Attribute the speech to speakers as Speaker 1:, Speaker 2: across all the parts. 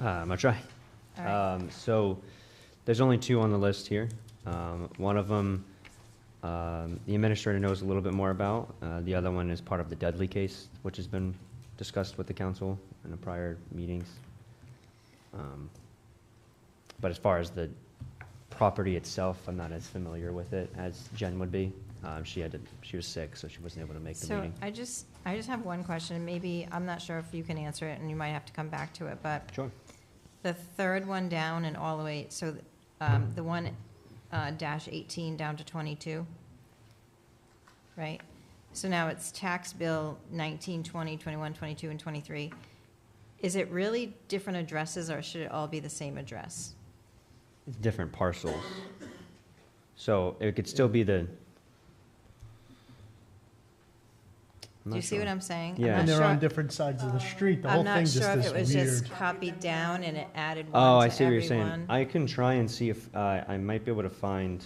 Speaker 1: Uh, I'm gonna try.
Speaker 2: All right.
Speaker 1: Um, So, there's only two on the list here. Um, One of them, um, the administrator knows a little bit more about. Uh, The other one is part of the Dudley case, which has been discussed with the council in the prior meetings. Um, But as far as the property itself, I'm not as familiar with it as Jen would be. Um, She had to, she was sick, so she wasn't able to make the
Speaker 2: So
Speaker 1: meeting.
Speaker 2: I just, I just have one question, and maybe, I'm not sure if you can answer it, and you might have to come back to it, but
Speaker 1: Sure.
Speaker 2: the third one down and all the way, so um, the one uh, dash 18 down to 22, right? So now it's tax bill 19, 20, 21, 22, and 23. Is it really different addresses, or should it all be the same address?
Speaker 1: It's different parcels. So it could still be the.
Speaker 2: Do you see what I'm saying? I'm
Speaker 1: Yeah.
Speaker 2: not
Speaker 3: And they're
Speaker 2: sure- Oh,
Speaker 3: on different sides of the street. The whole
Speaker 2: I'm
Speaker 3: thing
Speaker 2: not
Speaker 3: just
Speaker 2: sure if it was
Speaker 3: is
Speaker 2: just
Speaker 3: weird.
Speaker 2: copied down and it added
Speaker 1: Oh,
Speaker 2: one
Speaker 1: I
Speaker 2: to
Speaker 1: see what you're saying.
Speaker 2: everyone.
Speaker 1: I can try and see if, uh, I might be able to find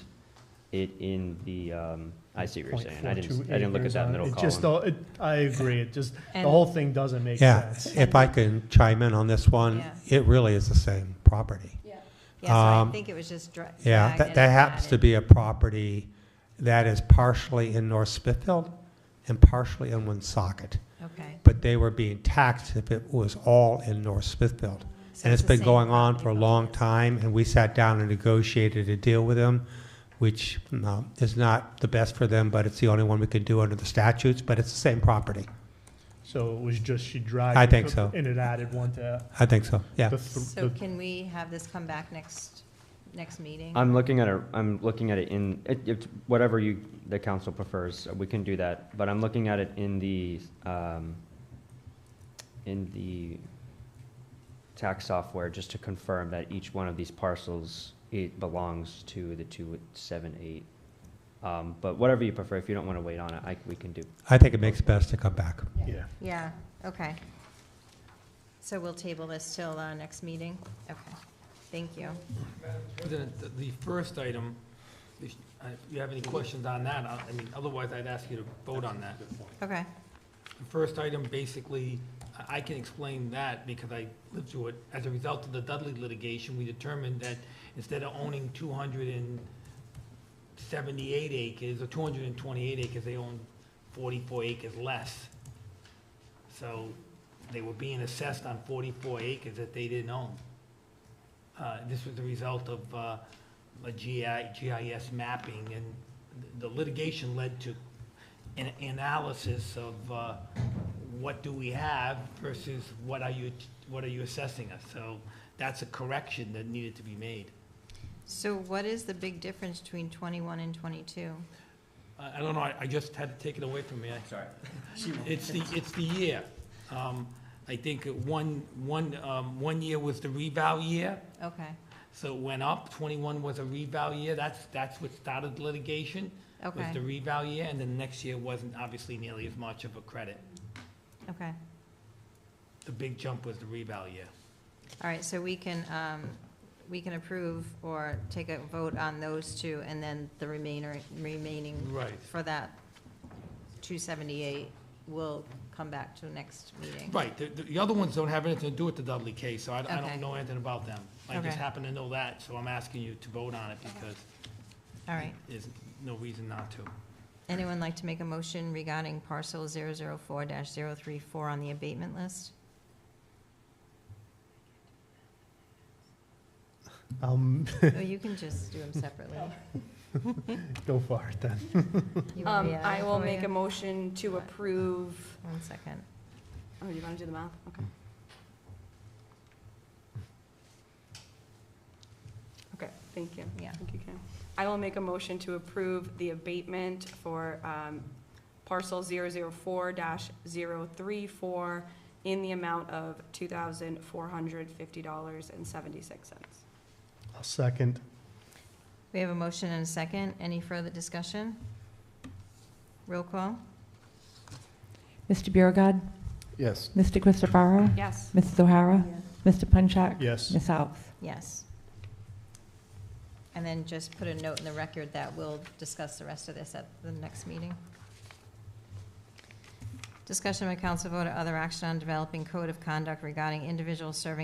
Speaker 1: it in the, um, I see what you're saying. I didn't,
Speaker 3: 0.42
Speaker 1: I didn't look at
Speaker 3: acres
Speaker 1: that
Speaker 3: on it.
Speaker 1: middle
Speaker 3: It just,
Speaker 1: column.
Speaker 3: all- it, I agree. It just, the
Speaker 2: And-
Speaker 3: whole thing doesn't make
Speaker 4: Yeah,
Speaker 3: sense.
Speaker 4: if I can chime in on this one,
Speaker 2: Yeah.
Speaker 4: it really is the same property.
Speaker 2: Yeah, so I
Speaker 4: um,
Speaker 2: think it was just dra- dragged
Speaker 4: Yeah, that,
Speaker 2: in
Speaker 4: that
Speaker 2: and
Speaker 4: happens to
Speaker 2: added.
Speaker 4: be a property that is partially in North Smithfield and partially in Woonsocket.
Speaker 2: Okay.
Speaker 4: But they were being taxed if it was all in North Smithfield.
Speaker 2: So
Speaker 4: And it's
Speaker 2: the
Speaker 4: been
Speaker 2: same
Speaker 4: going on
Speaker 2: property
Speaker 4: for a
Speaker 2: both
Speaker 4: long
Speaker 2: ways.
Speaker 4: time, and we sat down and negotiated a deal with them, which um, is not the best for them, but it's the only one we can do under the statutes, but it's the same property.
Speaker 3: So it was just she dragged.
Speaker 4: I
Speaker 3: it,
Speaker 4: think
Speaker 3: took-
Speaker 4: so.
Speaker 3: And it added one to
Speaker 4: I think so, yeah.
Speaker 3: the, th-
Speaker 2: So
Speaker 3: the-
Speaker 2: can we have this come back next, next meeting?
Speaker 1: I'm looking at it, I'm looking at it in, it, it's whatever you, the council prefers, we can do that. But I'm looking at it in the, um, in the tax software, just to confirm that each one of these parcels, it belongs to the two, seven, eight. Um, but whatever you prefer, if you don't wanna wait on it, I, we can do.
Speaker 4: I think it makes best to come back.
Speaker 3: yeah.
Speaker 2: Yeah, okay. So we'll table this till our next meeting? Okay, thank you.
Speaker 5: The, the- the first item, if uh, if you have any questions on that, I I mean, otherwise I'd ask you to vote on that.
Speaker 2: Okay,
Speaker 5: The first item, basically, I- I can explain that because I lived through it. As a result of the Dudley litigation, we determined that instead of owning 278 acres or 228 acres, they own 44 acres less. So they were being assessed on 44 acres that they didn't own. Uh, This was the result of uh, a GI GIS mapping, and the litigation led to an analysis of uh, what do we have versus what are you, what are you assessing us? So that's a correction that needed to be made.
Speaker 2: so what is the big difference between 21 and 22?
Speaker 5: I I don't know, I I just had to take it away from me. Sorry. It's the, it's the year. Um, I think it- one, one, um, one year was the revow year,
Speaker 2: Okay,
Speaker 5: so it went up. Twenty-one was a revow year, that's, that's what started litigation, was the
Speaker 2: okay,
Speaker 5: revow year, and then next year wasn't obviously nearly as much of a credit.
Speaker 2: okay.
Speaker 5: The big jump was the revow year.
Speaker 2: All right, so we can, um, we can approve or take a vote on those two, and then the remainder, remaining
Speaker 5: Right.
Speaker 2: for that 278 will come back to the next meeting.
Speaker 5: Right, the, the- the other ones don't have anything to do with the Dudley case, so I, I
Speaker 2: Okay.
Speaker 5: don't know anything about them. I
Speaker 2: Okay.
Speaker 5: just happen to know that, so I'm asking you to vote on it because
Speaker 2: All right.
Speaker 5: there's no reason not to.
Speaker 2: Anyone like to make a motion regarding parcel 004-034 on the abatement list?
Speaker 3: Um,
Speaker 2: Oh, you can just do them separately.
Speaker 3: go for it then.
Speaker 2: You want
Speaker 6: Um,
Speaker 2: me to
Speaker 6: I will
Speaker 2: for
Speaker 6: make
Speaker 2: you?
Speaker 6: a motion to approve,
Speaker 2: One second.
Speaker 6: oh, you want to do the math? Okay. Okay, thank you.
Speaker 2: Yeah.
Speaker 6: Thank you, Kim. I will make a motion to approve the abatement for um, parcel 004-034 in the amount of $2,450.76.
Speaker 3: I'll second.
Speaker 2: We have a motion and a second. Any further discussion? Roll call?
Speaker 7: Mr. Biragad.
Speaker 3: Yes.
Speaker 7: Mr. Christopherow.
Speaker 6: Yes.
Speaker 7: Mrs. O'Hara. Mr. Punchak.
Speaker 3: Yes.
Speaker 7: Ms. Alves.
Speaker 2: Yes. And then just put a note in the record that we'll discuss the rest of this at the next meeting. Discussion by council vote or other action on developing code of conduct regarding individuals serving